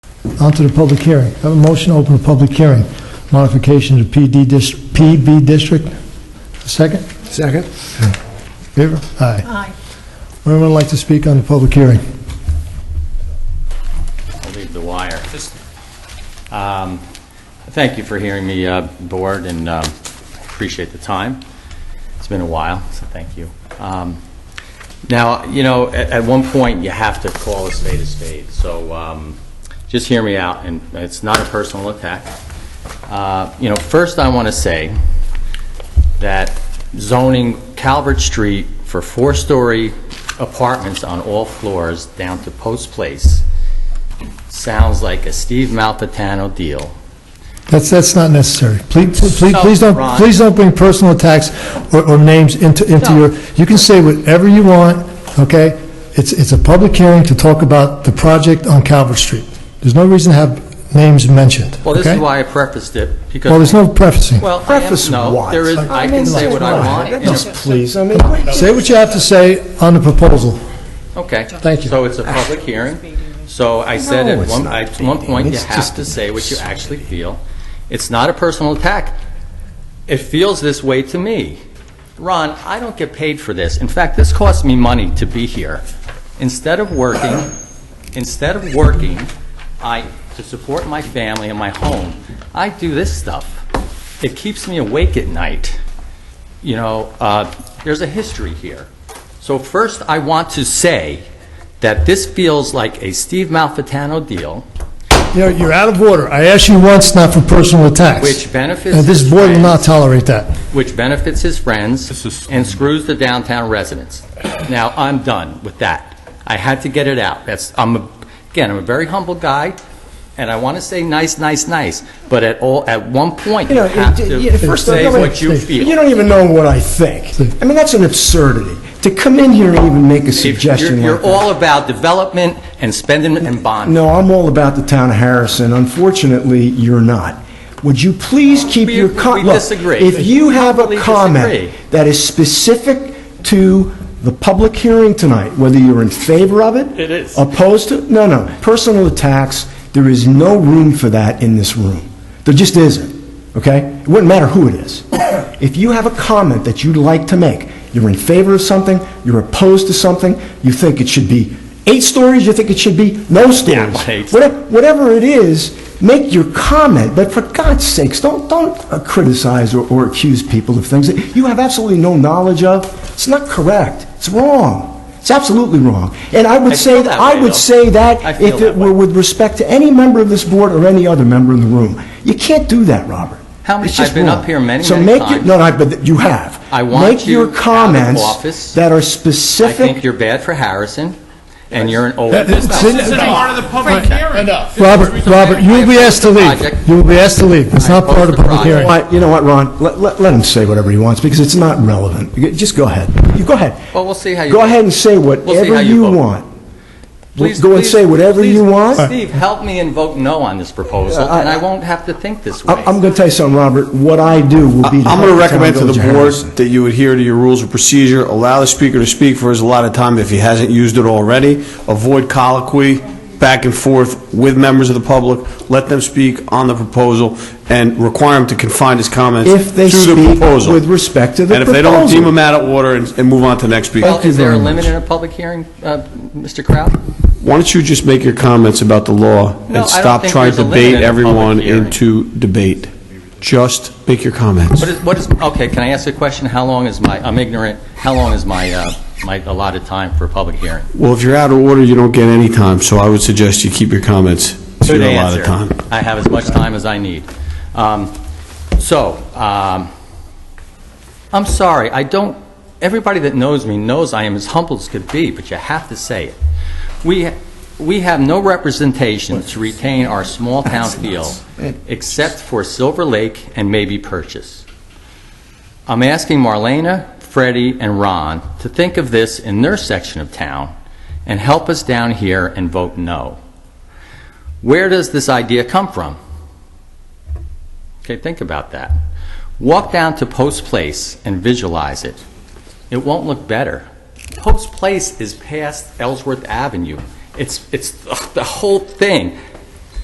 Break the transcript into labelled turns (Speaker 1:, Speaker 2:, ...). Speaker 1: Onto the public hearing. Have a motion to open a public hearing. Modification to PD dis, PB district. Second?
Speaker 2: Second?
Speaker 1: Favor? Aye.
Speaker 3: Aye.
Speaker 1: Anyone would like to speak on the public hearing?
Speaker 4: I'll leave the wire. Just, um, Thank you for hearing me, uh, Board, and um, appreciate the time. It's been a while, so thank you. Um, Now, you know, at at one point, you have to call a spade a spade, so um, just hear me out, and it's not a personal attack. Uh, You know, first, I want to say that zoning Calvert Street for four-story apartments on all floors down to Post Place sounds like a Steve Malpatano deal.
Speaker 1: That's, that's not necessary. Please, please,
Speaker 4: No,
Speaker 1: please don't,
Speaker 4: Ron.
Speaker 1: please don't bring personal attacks or, or names into, into
Speaker 4: No.
Speaker 1: your, you can say whatever you want, okay? It's, it's a public hearing to talk about the project on Calvert Street. There's no reason to have names mentioned,
Speaker 4: Well, this is
Speaker 1: okay?
Speaker 4: why I prefaced it, because...
Speaker 1: Well, there's no prefacing.
Speaker 4: Well, I am-
Speaker 2: Preface
Speaker 4: No,
Speaker 2: what?
Speaker 4: there is, I can say what I want. and
Speaker 2: Yes,
Speaker 4: if-
Speaker 2: please, I mean,
Speaker 1: Say what you have to say on the proposal.
Speaker 4: Okay.
Speaker 1: Thank you.
Speaker 4: So it's a public hearing. So I said
Speaker 2: No,
Speaker 4: at
Speaker 2: it's
Speaker 4: one,
Speaker 2: not
Speaker 4: at one point,
Speaker 2: beating.
Speaker 4: you
Speaker 2: It's just
Speaker 4: have to say what you actually feel. It's not a personal attack. It feels this way to me. Ron, I don't get paid for this. In fact, this costs me money to be here. Instead of working, instead of working, I, to support my family and my home, I do this stuff. It keeps me awake at night. You know, uh, there's a history here. So first, I want to say that this feels like a Steve Malfitano deal,
Speaker 1: You're, you're out of order. I asked you once not for personal attacks.
Speaker 4: Which benefits
Speaker 1: And this
Speaker 4: his
Speaker 1: board will not
Speaker 4: friends.
Speaker 1: tolerate that.
Speaker 4: which benefits his friends and screws the downtown residents. Now, I'm done with that. I had to get it out. That's, I'm, a- again, I'm a very humble guy, and I want to say nice, nice, nice, but at all, at one point,
Speaker 2: You
Speaker 4: you
Speaker 2: know,
Speaker 4: have
Speaker 2: it- yeah,
Speaker 4: to
Speaker 2: first of all,
Speaker 4: say
Speaker 2: nobody-
Speaker 4: what you feel.
Speaker 2: you don't even know what I think. I mean, that's an absurdity, to come in here and even make a
Speaker 4: If
Speaker 2: suggestion
Speaker 4: You're
Speaker 2: like
Speaker 4: you're
Speaker 2: that.
Speaker 4: all about development and spending and bonding.
Speaker 2: No, I'm all about the town of Harrison, unfortunately, you're not. Would you please keep
Speaker 4: We-
Speaker 2: your... co-
Speaker 4: we
Speaker 2: look,
Speaker 4: disagree.
Speaker 2: If you have a
Speaker 4: We disagree.
Speaker 2: comment that is specific to the public hearing tonight, whether you're in favor of it...
Speaker 4: It is.
Speaker 2: Opposed to, no, no, personal attacks, there is no room for that in this room. There just isn't, okay? It wouldn't matter who it is. If you have a comment that you'd like to make, you're in favor of something, you're opposed to something, you think it should be eight stories, you think it should be no stories.
Speaker 4: eight.
Speaker 2: Whatever whatever it is, make your comment, but for God's sakes, don't, don't uh, criticize or, or accuse people of things that you have absolutely no knowledge of. It's not correct. It's wrong. It's absolutely wrong. And I would
Speaker 4: I
Speaker 2: say,
Speaker 4: feel that
Speaker 2: I
Speaker 4: way,
Speaker 2: would
Speaker 4: though.
Speaker 2: say
Speaker 4: I
Speaker 2: that
Speaker 4: feel
Speaker 2: if it
Speaker 4: that way.
Speaker 2: were with respect to any member of this board or any other member in the room. You can't do that, Robert.
Speaker 4: How many-
Speaker 2: It's just
Speaker 4: I've been
Speaker 2: wrong.
Speaker 4: up here many,
Speaker 2: So
Speaker 4: many
Speaker 2: make your-
Speaker 4: times.
Speaker 2: No, no, but you have.
Speaker 4: I want
Speaker 2: Make
Speaker 4: you
Speaker 2: your
Speaker 4: out of
Speaker 2: comments
Speaker 4: office.
Speaker 2: that are
Speaker 4: I
Speaker 2: specific.
Speaker 4: think you're bad for Harrison, and you're an old
Speaker 1: That-
Speaker 4: business.
Speaker 1: that's-
Speaker 5: This is part of the public hearing. Enough.
Speaker 1: Robert, Robert, you will be asked to leave.
Speaker 4: Project.
Speaker 1: You will be asked to leave. It's
Speaker 4: I
Speaker 1: not part of
Speaker 4: oppose the
Speaker 1: public hearing.
Speaker 4: project.
Speaker 2: Why- you know what, Ron? Let, let, let him say whatever he wants because it's not relevant. You- Just go ahead. You go ahead.
Speaker 4: Well, we'll see how you
Speaker 2: Go
Speaker 4: vote.
Speaker 2: ahead and say
Speaker 4: We'll see how
Speaker 2: whatever
Speaker 4: you
Speaker 2: you
Speaker 4: vote.
Speaker 2: want.
Speaker 4: Please-
Speaker 2: Go and
Speaker 4: please-
Speaker 2: say whatever you
Speaker 4: please,
Speaker 2: want.
Speaker 4: Steve, help me and vote no on this proposal, and I won't have to think this way.
Speaker 2: I, am going to tell you something, Robert. What I do will be.
Speaker 6: I'm going to
Speaker 2: help
Speaker 6: recommend
Speaker 2: town
Speaker 6: to the
Speaker 2: village
Speaker 6: board
Speaker 2: Harris.
Speaker 6: that you adhere to your rules of procedure, allow the speaker to speak for his allotted time if he hasn't used it already, avoid colloquy back and forth with members of the public, let them speak on the proposal, and require him to confine his comments to
Speaker 2: If they
Speaker 6: the
Speaker 2: speak
Speaker 6: proposal.
Speaker 2: with respect to the
Speaker 6: And if they don't,
Speaker 2: proposal.
Speaker 6: deem him out of order and and move on to the next speaker.
Speaker 4: Well,
Speaker 2: Thank you
Speaker 4: is there a
Speaker 2: very
Speaker 4: limit
Speaker 2: much.
Speaker 4: in a public hearing, uh, Mr. Kraut?
Speaker 6: Why don't you just make your comments about the law
Speaker 4: No, I don't
Speaker 6: and stop
Speaker 4: think
Speaker 6: trying
Speaker 4: there's a
Speaker 6: to
Speaker 4: limit
Speaker 6: bait
Speaker 4: in a public
Speaker 6: everyone
Speaker 4: hearing.
Speaker 6: into debate? Just make your comments.
Speaker 4: What is, what is, okay, can I ask a question? How long is my, I'm ignorant, how long is my, uh, my allotted time for a public hearing?
Speaker 6: Well, if you're out of order, you don't get any time, so I would suggest you keep your comments to
Speaker 4: Good
Speaker 6: your allotted
Speaker 4: answer.
Speaker 6: time.
Speaker 4: I have as much time as I need. Um, So, um, I'm sorry, I don't, everybody that knows me knows I am as humble as could be, but you have to say it. We, we have no representation to retain our small-town feel, except for Silver Lake and maybe Purchase. I'm asking Marlena, Freddie, and Ron to think of this in their section of town and help us down here and vote no. Where does this idea come from? Okay, think about that. Walk down to Post Place and visualize it. It won't look better. Post Place is past Ellsworth Avenue. It's, it's, ugh, the whole thing